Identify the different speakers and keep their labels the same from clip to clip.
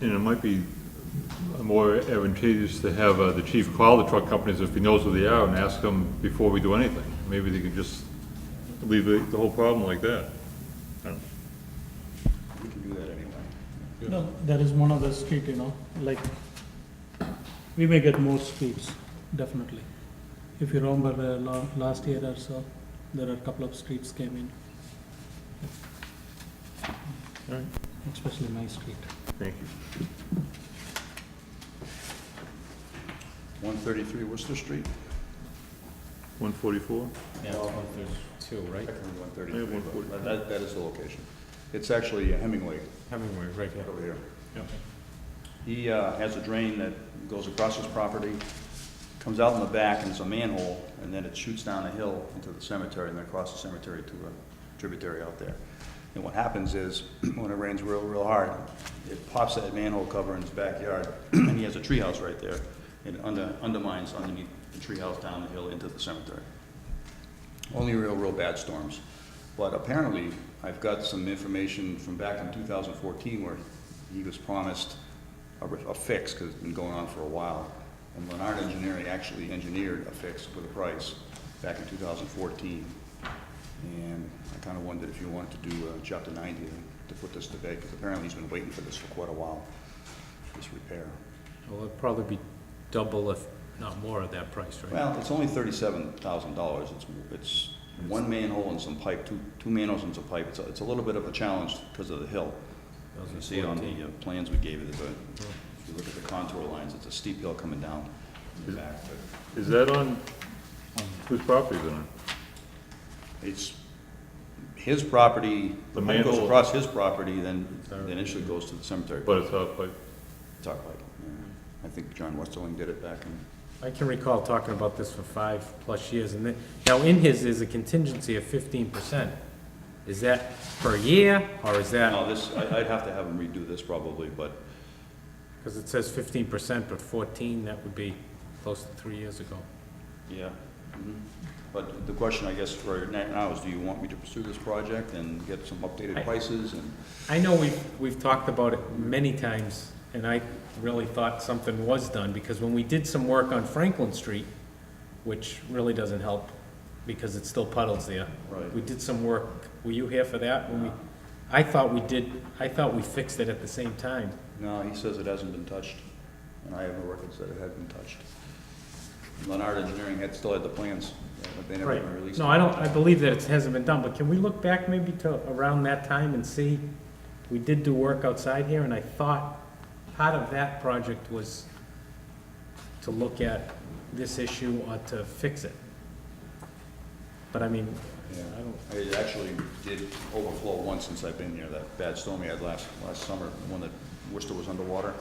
Speaker 1: you know, it might be more advantageous to have uh, the chief call the truck companies if he knows who they are and ask them before we do anything. Maybe they can just leave the the whole problem like that. I don't-
Speaker 2: We can do that anyway.
Speaker 3: No, there is one other street, you know, like, we may get more streets, definitely. If you remember, uh, la- last year or so, there are a couple of streets came in.
Speaker 1: Alright.
Speaker 3: Especially my street.
Speaker 1: Thank you.
Speaker 2: One thirty-three Worcester Street?
Speaker 1: 144?
Speaker 4: Yeah, there's two, right?
Speaker 2: One
Speaker 1: Yeah, 143.
Speaker 2: That, that is the location. It's actually Hemingway
Speaker 4: Hemingway, right, yeah.
Speaker 2: over here.
Speaker 1: Yeah.
Speaker 2: He uh, has a drain that goes across his property, comes out in the back, and it's a manhole, and then it shoots down a hill into the cemetery, and then across the cemetery to a tributary out there. And what happens is, when it rains real, real hard, it pops that manhole cover in his backyard, and he has a treehouse right there, and it under- undermines underneath the treehouse down the hill into the cemetery. Only real, real bad storms. But apparently, I've got some information from back in 2014 where he was promised a re- a fix, because it's been going on for a while. And Leonard Engineering actually engineered a fix with a price back in 2014. And I kind of wondered if you wanted to do uh, Chapter 90 to put this to bed, because apparently he's been waiting for this for quite a while, this repair.
Speaker 4: Well, it'd probably be double if not more of that price, right?
Speaker 2: Well, it's only thirty-seven thousand dollars, it's, it's one manhole and some pipe, two, two manholes and some pipe, it's, a- it's a little bit of a challenge because of the hill. As you see on the uh, plans we gave you, there's a, if you look at the contour lines, it's a steep hill coming down in the back, but
Speaker 1: Is that on, whose property is it on?
Speaker 2: it's his property, the
Speaker 1: The
Speaker 2: pipe goes
Speaker 1: manhole-
Speaker 2: across his property, then, then initially goes to the cemetery,
Speaker 1: But it's off like,
Speaker 2: top pipe. yeah. I think John Westerling did it back in
Speaker 4: I can recall talking about this for five-plus years, and then, now in his is a contingency of fifteen percent. Is that per year, or is that,
Speaker 2: No, this, I, I'd have to have him redo this probably, but
Speaker 4: because it says fifteen percent, but fourteen, that would be close to three years ago.
Speaker 2: Yeah.
Speaker 4: Mm-hmm.
Speaker 2: mhm. But the question, I guess, for now is, do you want me to pursue this project and get some updated
Speaker 4: I-
Speaker 2: prices and?
Speaker 4: I know we've, we've talked about it many times, and I really thought something was done, because when we did some work on Franklin Street, which really doesn't help, because it's still puddles there.
Speaker 2: Right.
Speaker 4: We did some work, were you here for that? When we, I thought we did, I thought we fixed it at the same time.
Speaker 2: No, he says it hasn't been touched, and I have no records that it had been touched. Leonard Engineering had, still had the plans, but they never
Speaker 4: Right.
Speaker 2: even released.
Speaker 4: No,
Speaker 2: them.
Speaker 4: I don't, I believe that it hasn't been done, but can we look back maybe to around that time and see? We did do work outside here, and I thought part of that project was to look at this issue or to fix it. But I mean,
Speaker 2: Yeah.
Speaker 4: I don't,
Speaker 2: It actually did overflow once since I've been here, that bad storm we had last, last summer, the one that Worcester was underwater.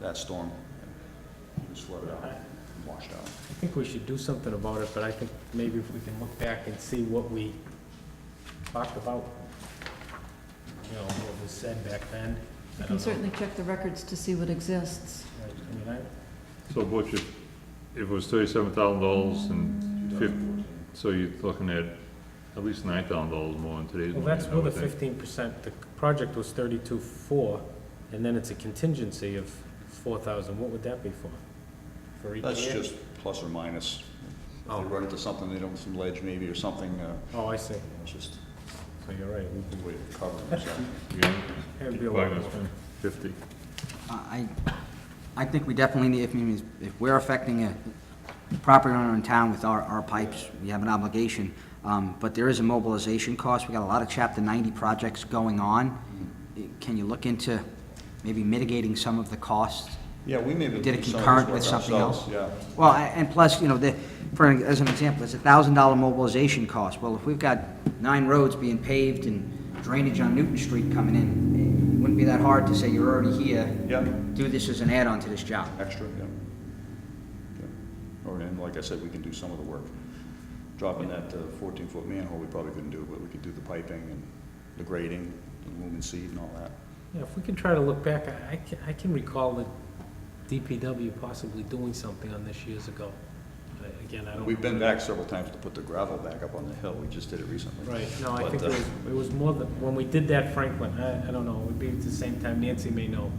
Speaker 2: That storm, it was flooded out, washed out.
Speaker 4: I think we should do something about it, but I think maybe if we can look back and see what we talked about, you know, what was said back then. I
Speaker 5: You
Speaker 4: don't know.
Speaker 5: can certainly check the records to see what exists.
Speaker 4: Right, I mean, I-
Speaker 1: so what if, if it was $37,000 and 50, so you're looking at at least $9,000 more in today's
Speaker 4: Well,
Speaker 1: money.
Speaker 4: that's
Speaker 1: I
Speaker 4: with
Speaker 1: would
Speaker 4: a
Speaker 1: think.
Speaker 4: fifteen percent, the project was thirty-two four, and then it's a contingency of four thousand, what would that be for? For each
Speaker 2: That's
Speaker 4: year?
Speaker 2: just plus or minus. If They
Speaker 4: Oh.
Speaker 2: run into something, they don't, some ledge maybe or something, uh,
Speaker 4: Oh, I see,
Speaker 2: it's just
Speaker 4: so you're right, we-
Speaker 2: a way of covering themselves.
Speaker 1: Yeah.
Speaker 4: it would be a lot
Speaker 1: Probably
Speaker 4: more.
Speaker 1: gonna spend 50.
Speaker 6: I, I think we definitely need, if, we- if we're affecting a property owner in town with our, our pipes, we have an obligation. Um, but there is a mobilization cost. We got a lot of chapter ninety projects going on. Can you look into maybe mitigating some of the costs?
Speaker 2: Yeah, we maybe.
Speaker 6: Did
Speaker 2: do some
Speaker 6: it
Speaker 2: of this
Speaker 6: concurrent
Speaker 2: work
Speaker 6: with something
Speaker 2: ourselves,
Speaker 6: else?
Speaker 2: Yeah.
Speaker 6: Well, a- and plus, you know, the, for, an- as an example, it's a thousand dollar mobilization cost. Well, if we've got nine roads being paved and drainage on Newton Street coming in, it wouldn't be that hard to say you're already here.
Speaker 2: Yeah.
Speaker 6: Do this as an add-on to this job.
Speaker 2: Extra, yeah. Yeah. Or, and like I said, we can do some of the work. Dropping that uh, fourteen-foot manhole, we probably couldn't do, but we could do the piping and the grading, the lumen seed and all that.
Speaker 4: Yeah, if we can try to look back, I, I can, I can recall the DPW possibly doing something on this years ago. But Again, I don't.
Speaker 2: We've been back several times to put the gravel back up on the hill, we just did it recently.
Speaker 4: Right, no, I
Speaker 2: But,
Speaker 4: think it
Speaker 2: uh,
Speaker 4: was, it was more than, when we did that Franklin, I, I don't know, it would be at the same time, Nancy may know.